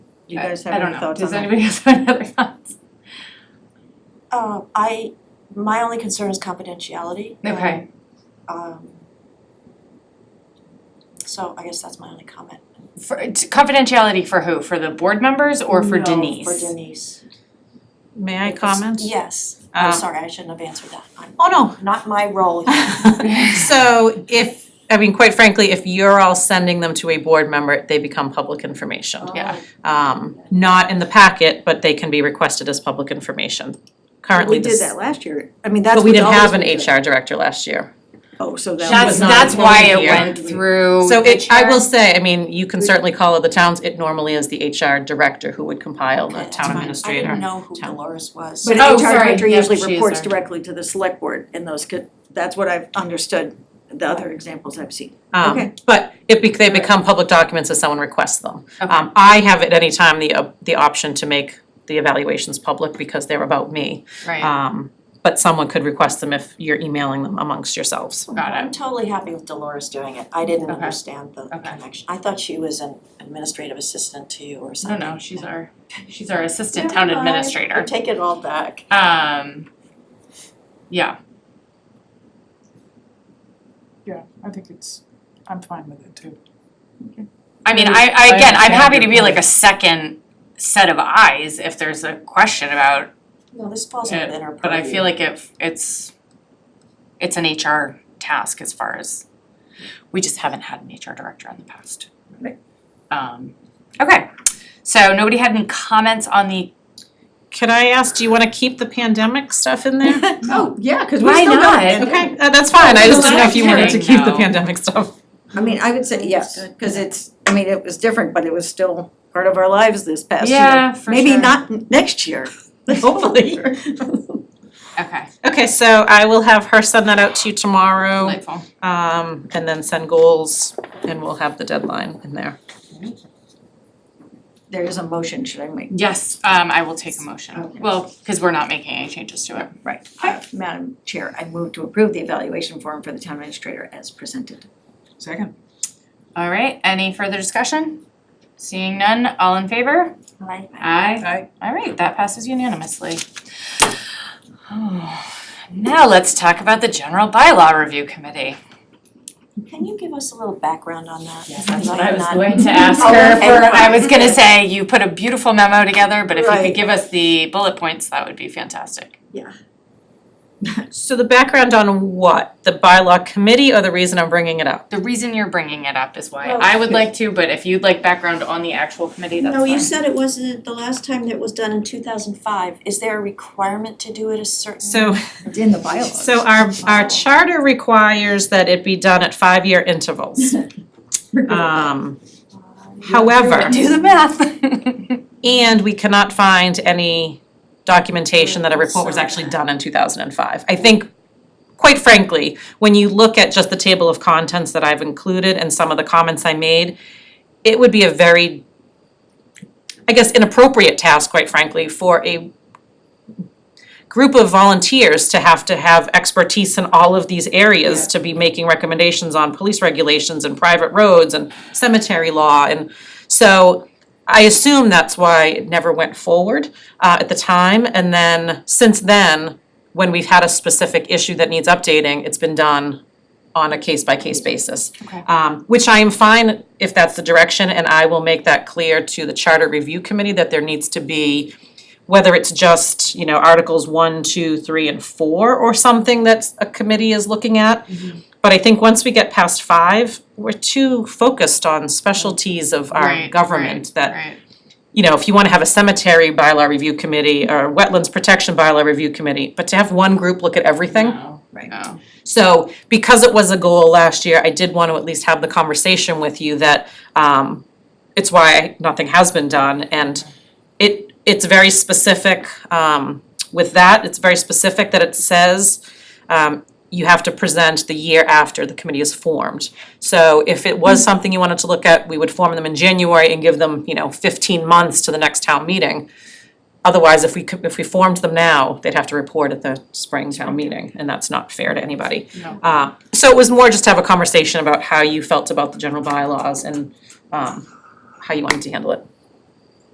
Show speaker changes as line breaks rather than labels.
Do you guys
I
have
don't
any
know,
thoughts on
does
that?
anybody else have any other thoughts?
Uh, I, my only concern is confidentiality.
Okay,
Um, so I guess that's my only comment.
for t- confidentiality for who, for the board members or for
No, for
Denise?
For Denise.
May I comment?
Yes,
Uh,
I'm sorry, I shouldn't have answered that. I'm,
Oh, no,
not my role.
So if, I mean, quite frankly, if you're all sending them to a board member, they become public information.
Yeah.
Um, not in the packet, but they can be requested as public information. Currently,
We did
this,
that last year. I mean, that's
but we
what's
didn't
always
have an
been done.
HR director last year.
Oh, so that
That's
was not.
that's why it
included here.
went through
So
the
it, I
chair.
will say, I mean, you can certainly call it the towns, it normally is the HR director who would compile the
Okay, that's
town
fine. I
administrator.
didn't know who
town-
Dolores was.
But
Oh,
an HR
sorry.
director
Yep,
usually
she is
reports
our-
directly to the select board and those could, that's what I've understood, the other examples I've seen.
Um,
Okay.
But it, bec- they become public documents as someone requests them.
Okay.
Um, I have at any time the, op- the option to make the evaluations public because they're about me.
Right,
Um, but someone could request them if you're emailing them amongst yourselves.
got
I'm
it,
totally happy with Dolores doing it. I didn't
Okay.
understand the
Okay.
connection. I thought she was an administrative assistant to you or
no,
something.
no, she's our, she's our assistant town
Never mind. I
administrator,
take it all back.
um, yeah.
Yeah, I think it's, I'm fine with it too.
I mean, I, I, again, I'm
understand
happy to
your
be like
point.
a second set of eyes if there's a question about
No, this falls
Yeah,
within her purview.
But I feel like if it's, it's an HR task as far as, we just haven't had an HR director in the past.
Right.
Um, okay, so nobody had any comments on the,
Could I ask, do you wanna keep the pandemic stuff in there?
Oh, yeah, cause we
Why
still got
not?
it.
Okay, uh, that's fine, I just didn't know if you wanted to
Kidding,
keep the
no.
pandemic stuff.
I mean, I would say yes, cause it's, I mean, it was different, but it was still part of our lives this past year.
Yeah, for
Maybe
sure.
not n- next year, but hopefully. Hopefully.
okay,
Okay, so I will have her send that out to you tomorrow,
delightful.
um, and then send goals, and we'll have the deadline in there.
There is a motion, should I make?
Yes, um, I will take a motion,
Okay.
well, cause we're not making any changes to it.
Right. Uh, Madam Chair, I move to approve the evaluation form for the town administrator as presented.
Second.
All right, any further discussion? Seeing none, all in favor?
Right.
Aye. Aye. All right, that passes unanimously. Now let's talk about the general bylaw review committee.
Can you give us a little background on that?
That's
Because
what I
am
was
not-
going to ask
Oh,
her
okay.
for, I was gonna say, you put a beautiful memo together, but if you could
Right.
give us the bullet points, that would be fantastic.
So the background on what? The bylaw committee or the reason I'm bringing it up?
The reason you're bringing it up is why
Oh,
I would like to, but if you'd like background on the actual committee, that's
No, you
fine.
said it wasn't, the last time that it was done in two thousand five, is there a requirement to do it a certain?
So,
It's in the bylaws.
so our, our charter requires that it be done at five-year intervals. Um, however,
Do the math.
and we cannot find any documentation that a report was actually done in two thousand and five. I think, quite frankly, when you look at just the table of contents that I've included and some of the comments I made, it would be a very, I guess, inappropriate task, quite frankly, for a group of volunteers to have to have expertise in all of these areas to be making recommendations on police regulations and private roads and cemetery law and so I assume that's why it never went forward uh, at the time. And then since then, when we've had a specific issue that needs updating, it's been done on a case by case basis.
Okay.
Um, which I am fine if that's the direction, and I will make that clear to the charter review committee that there needs to be whether it's just, you know, articles one, two, three, and four or something that a committee is looking at.
Mm-hmm.
But I think once we get past five, we're too focused on specialties of our
Right,
government that
Right,
you know, if you wanna have a cemetery bylaw review committee or wetlands protection bylaw review committee, but to have one group look at everything.
no,
Right.
no.
So because it was a goal last year, I did wanna at least have the conversation with you that um it's why nothing has been done and it it's very specific um with that, it's very specific that it says um you have to present the year after the committee is formed. So if it was something you wanted to look at, we would form them in January and give them, you know, fifteen months to the next town meeting. Otherwise, if we could, if we formed them now, they'd have to report at the spring town meeting, and that's not fair to anybody.
No.
Uh, so it was more just to have a conversation about how you felt about the general bylaws and um how you wanted to handle it.